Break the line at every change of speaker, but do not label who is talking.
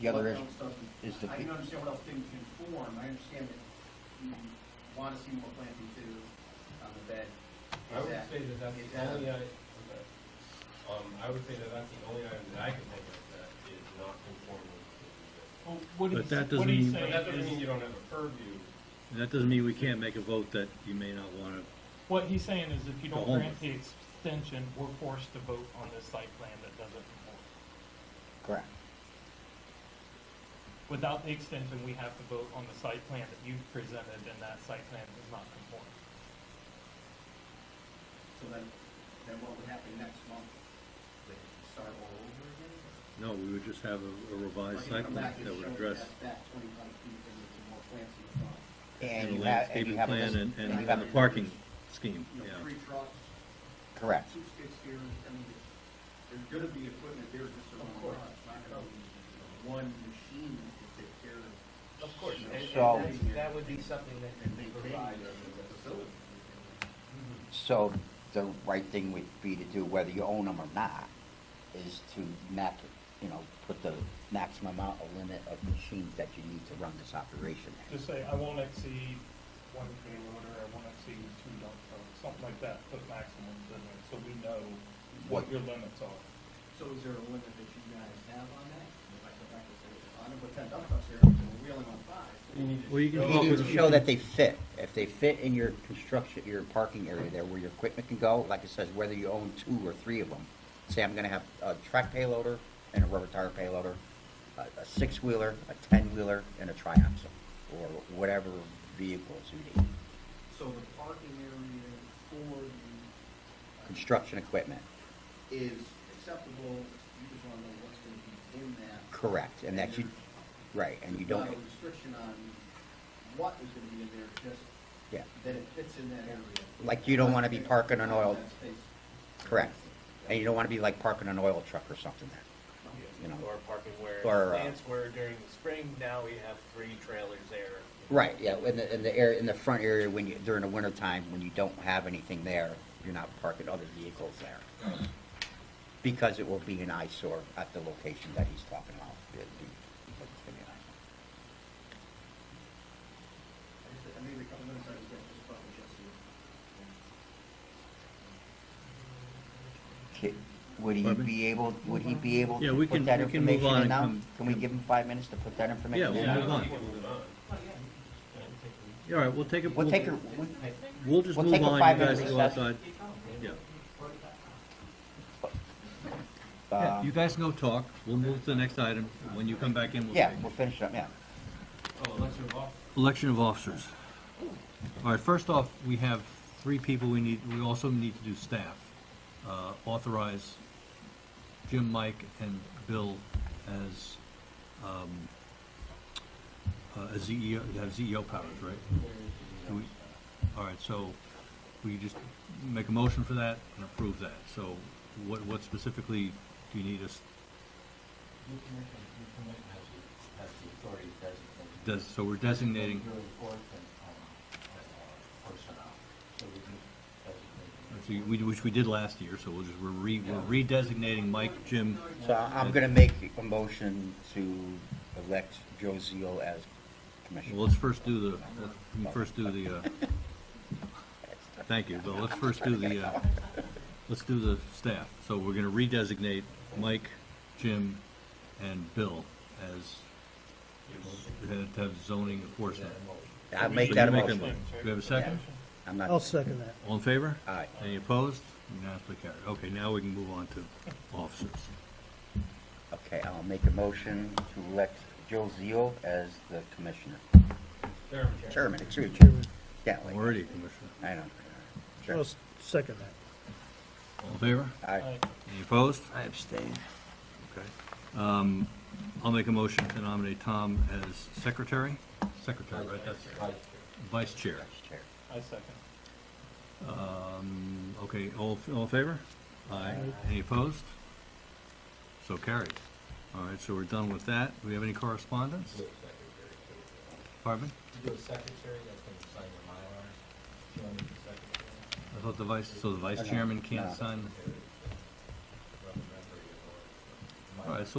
The other is,
is
the
I can
pe-
understand what else things can form, I understand that you wanna see more planting too on the bed.
I would
Exact-
say that that's the
exact-
only, item- okay. um, I would say that that's the only item that I can think of that is not conforming. to the-
Well, What
But
he's,
that doesn't
what he's
mean-
But
saying
that doesn't mean
is,
you don't have a purview.
That doesn't mean we can't make a vote that you may not want to,
what he's saying is if you
The
don't
home.
grant the extension, we're forced to vote on this site plan that doesn't conform.
correct.
Without the extension, we have to vote on the site plan that you've presented and that site plan does not conform.
So then, then what would happen next month? They could start all over again?
no, we would just have a a
Or
revised
you
site
come
plan
back and
that would
show
address
that Back twenty-five feet, and there's some more plants in the front.
and
And
a
you have, and
landscaping
you have a
plan
list.
and, and
and you
and
have
the
a-
parking scheme,
You know,
yeah.
three trucks,
Correct.
two skid steers, I mean, there's, there's gonna be equipment there just around the garage, it's not gonna be one machine that can take care of.
Of course, and, and
So-
that- that would be something that
And
they
they
provide.
provide the facility.
So the right thing would be to do, whether you own them or not, is to max, you know, put the maximum amount, a limit of machines that you need to run this operation.
Just say, I won't exceed one tree loader, I won't exceed two dump trucks, something like that, put maximums in there, so we know what
What-
your limits are.
So is there a limit that you guys have on that? If I go back and say, I know what ten dump trucks here, and we're wheeling on five.
You need to
Well, you can
show-
come up
You need
with,
to show that they fit. If they fit in your construction, your parking area there where your equipment can go, like it says, whether you own two or three of them. Say I'm gonna have a track payloader and a rubber tire payloader, a, a six-wheeler, a ten-wheeler, and a triaxle, or whatever vehicles you need.
So the parking area for the. uh,
Construction equipment,
Is acceptable, you just wanna know what's gonna be in that.
correct, and that you, right, and you
There's
don't,
Not a restriction on what is gonna be in there, just
yeah,
that it fits in that area.
Like you don't wanna be parking an oil-
That space.
correct. And you don't wanna be like parking an oil truck or something there. You know.
Or parking where
Or, uh,
plants were during the spring, now we have three trailers there.
Right, yeah, in the, in the area, in the front area, when you, during the winter time, when you don't have anything there, you're not parking other vehicles there. Because it will be an eyesore at the location that he's talking about. It'd be- it's gonna be an eyesore.
I just- I made a couple minutes, I was gonna just probably just do
Ki- Would he
Pardon me?
be able, would he be able
Yeah, we
to
can-
put that
we can move
information
on
in
and
now?
come-
Can we give him five minutes to put that
yeah,
information in
we'll move
now?
on.
you can move on.
Yeah, All right, we'll take a,
We'll
we'll,
take her, we-
we'll just
we'll
move
take a
on, you
five-minute
guys go
recess.
outside. Yeah, Yeah, you
um,
guys can go talk, we'll move to the next item, when you come back in, we'll.
yeah,
take-
we'll finish up, yeah.
Oh, unless you're off.
Election of officers. All right, first off, we have three people we need, we also need to do staff. Uh, Authorize Jim, Mike, and Bill as, um, uh, as CEO, have CEO powers, right? Do we- All right, so we just make a motion for that and approve that. So what, what specifically do you need us,
Your commission, your commission has the, has the authority to designate.
does, so we're designating,
Your enforcement, um, uh, personnel, so we do designate.
which we- which we did last year, so we'll just, we're re, we're redesignating Mike, Jim,
So I'm gonna make a motion to elect Joe Zeal as commissioner.
Well, let's first do the, let's first do the, uh, thank you, but let's first do the, uh, let's do the staff. So we're gonna redesignate Mike, Jim, and Bill as, to have zoning enforcement.
I'll make that a
So you
motion.
Do we have a second?
I'm not,
I'll second that.
All in favor?
aye.
Any opposed? Unanimously carried. Okay, now we can move on to officers.
Okay, I'll make a motion to elect Joe Zeal as the commissioner.
Chairman.
Chairman, excuse me.
Chairman.
Yeah, like,
Already, Commissioner.
I know.
I'll
Sure.
s- second that.
All in favor?
Aye.
Any opposed?
I abstain.
Okay. Um, I'll make a motion to nominate Tom as secretary. Secretary, right, that's vice chair.
Chair.
I second.
Um, okay, all, all in favor? Aye. Any opposed? So carried. All right, so we're done with that. Do we have any correspondence? Pardon?
You do a secretary that's gonna sign the Mylar, you want me to secretary?
I thought the vice, so the vice
Okay.
chairman
No.
can't sign?